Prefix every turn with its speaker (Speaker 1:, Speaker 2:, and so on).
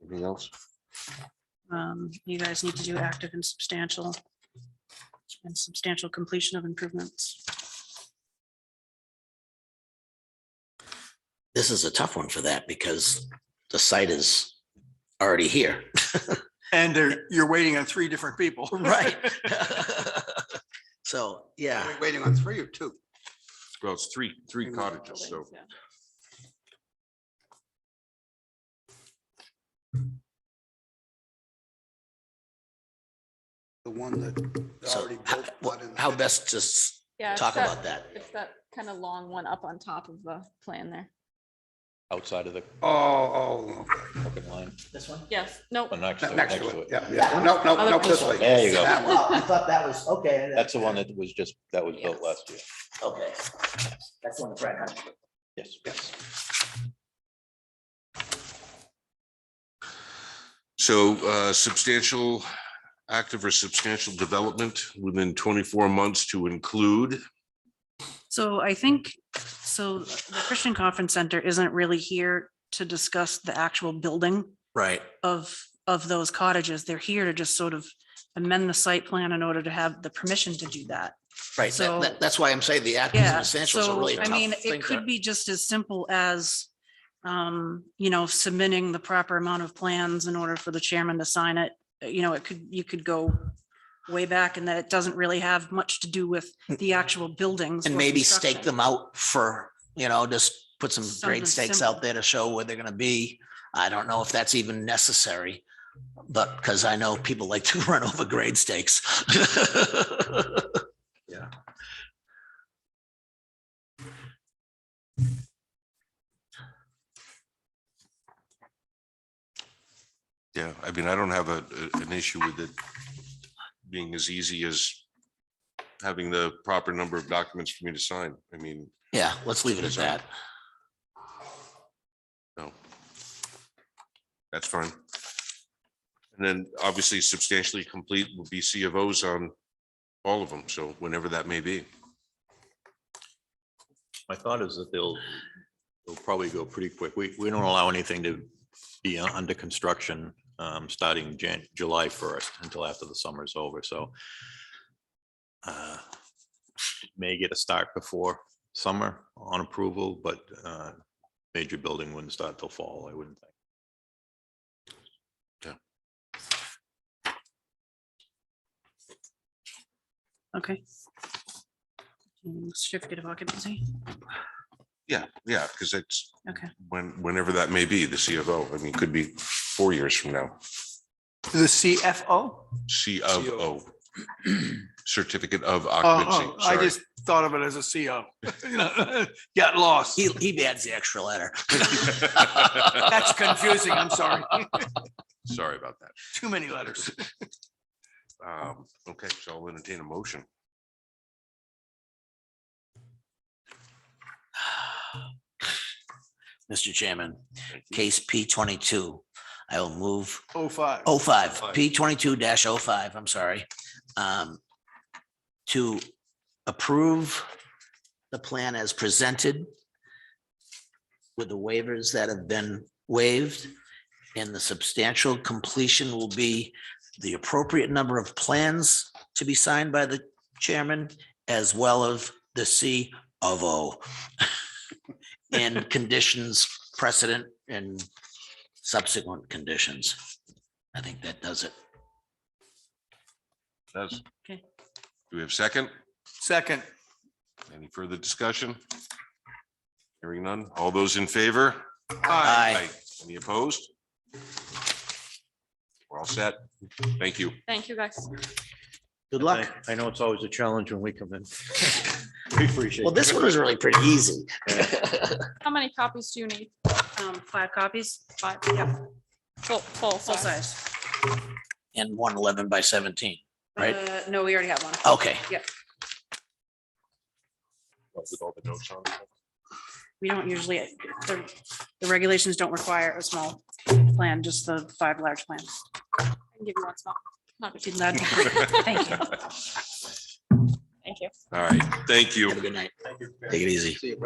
Speaker 1: Anything else?
Speaker 2: Um, you guys need to do active and substantial. And substantial completion of improvements.
Speaker 3: This is a tough one for that because the site is already here.
Speaker 4: And they're- you're waiting on three different people.
Speaker 3: Right. So, yeah,
Speaker 4: We're Waiting on three or two.
Speaker 1: Well, it's three, three cottages, so
Speaker 4: The one that
Speaker 3: so
Speaker 4: already
Speaker 3: how-
Speaker 4: built.
Speaker 3: wha-
Speaker 4: one in-
Speaker 3: how best to s-
Speaker 5: Yeah. it's
Speaker 3: talk
Speaker 5: that-
Speaker 3: about that?
Speaker 5: It's that kind of long one up on top of the plan there.
Speaker 6: outside of the
Speaker 4: Oh, oh,
Speaker 6: fucking line,
Speaker 3: This one?
Speaker 5: Yes, no,
Speaker 6: but next to
Speaker 4: okay.
Speaker 6: it,
Speaker 4: next
Speaker 6: next
Speaker 4: to it.
Speaker 6: to it.
Speaker 4: Yeah, yeah. No, no,
Speaker 5: Other
Speaker 4: no, this
Speaker 5: people.
Speaker 4: way.
Speaker 6: There you go.
Speaker 4: That one.
Speaker 3: Oh, I thought that was, okay.
Speaker 6: That's the one that was just, that was built last year.
Speaker 3: Okay. That's the one that's right. on it.
Speaker 6: Yes.
Speaker 1: So uh, substantial, active or substantial development within twenty-four months to include.
Speaker 2: So I think, so the Christian Conference Center isn't really here to discuss the actual building
Speaker 3: Right.
Speaker 2: of, of those cottages. They're here to just sort of amend the site plan in order to have the permission to do that.
Speaker 3: Right,
Speaker 2: So-
Speaker 3: that, that- that's why I'm saying the actions and
Speaker 2: Yeah,
Speaker 3: essentials are
Speaker 2: so
Speaker 3: really a
Speaker 2: I mean,
Speaker 3: tough thing
Speaker 2: it could
Speaker 3: to.
Speaker 2: be just as simple as, um, you know, submitting the proper amount of plans in order for the chairman to sign it. Uh, You know, it could, you could go way back and that it doesn't really have much to do with the actual buildings.
Speaker 3: Mm. And
Speaker 2: or
Speaker 3: maybe stake
Speaker 2: construction.
Speaker 3: them out for, you know, just put some
Speaker 2: Something
Speaker 3: grade stakes
Speaker 2: simple.
Speaker 3: out there to show where they're gonna be. I don't know if that's even necessary, but, because I know people like to run over grade stakes.
Speaker 1: Yeah, I mean, I don't have a, a- an issue with it being as easy as having the proper number of documents for me to sign. I mean,
Speaker 3: Yeah, let's leave it at that.
Speaker 1: no. That's fine. And then obviously substantially complete will be C of Os on all of them, so whenever that may be.
Speaker 6: My thought is that they'll, they'll probably go pretty quick. We, we don't allow anything to be un- under construction um, starting Jan, July first until after the summer's over, so. uh, May get a start before summer on approval, but uh, major building wouldn't start till fall, I wouldn't think.
Speaker 2: Okay. Mm, Certificate of occupancy.
Speaker 1: Yeah, yeah, because it's
Speaker 2: Okay.
Speaker 1: when, whenever that may be, the C of O, I mean, could be four years from now.
Speaker 4: The CFO?
Speaker 1: C of
Speaker 4: CO.
Speaker 1: O. Certificate of
Speaker 4: Oh,
Speaker 1: occupancy.
Speaker 4: oh, I
Speaker 1: sorry.
Speaker 4: just thought of it as a CO. You know, Got lost.
Speaker 3: He, he adds the extra letter.
Speaker 4: That's confusing. I'm sorry.
Speaker 1: Sorry about that.
Speaker 4: Too many letters.
Speaker 1: Um, Okay, so I'll entertain a motion.
Speaker 3: Mr. Chairman, case P twenty-two, I will move
Speaker 4: Oh, five.
Speaker 3: Oh, five, P twenty-two 5 oh five, I'm sorry. Um, To approve the plan as presented with the waivers that have been waived, and the substantial completion will be the appropriate number of plans to be signed by the chairman, as well as the C of O. And conditions precedent and subsequent conditions. I think that does it.
Speaker 1: Does. Do
Speaker 2: Okay.
Speaker 1: we have a second?
Speaker 4: Second.
Speaker 1: Any further discussion? Hearing none. All those in favor?
Speaker 4: Aye.
Speaker 3: Aye.
Speaker 1: Any opposed? We're all set. Thank you.
Speaker 5: thank you guys.
Speaker 3: Good luck.
Speaker 6: I know it's always a challenge when we come in. We appreciate
Speaker 3: Well, this one was really pretty easy.
Speaker 5: How many copies do you need?
Speaker 2: Um, five copies,
Speaker 5: Five,
Speaker 2: yeah,
Speaker 5: full, full
Speaker 2: full
Speaker 5: size.
Speaker 2: size.
Speaker 3: And one eleven by seventeen. Right.
Speaker 2: Uh, No, we already have one.
Speaker 3: Okay,
Speaker 1: With all the notes on.
Speaker 2: We don't usually, the, the regulations don't require a small plan, just the five large plans.
Speaker 5: I can give you one small. Not a
Speaker 2: Did
Speaker 5: big-
Speaker 2: not- Thank you.
Speaker 5: Thank you.
Speaker 1: All right, thank you.
Speaker 3: have a good night. Take it easy.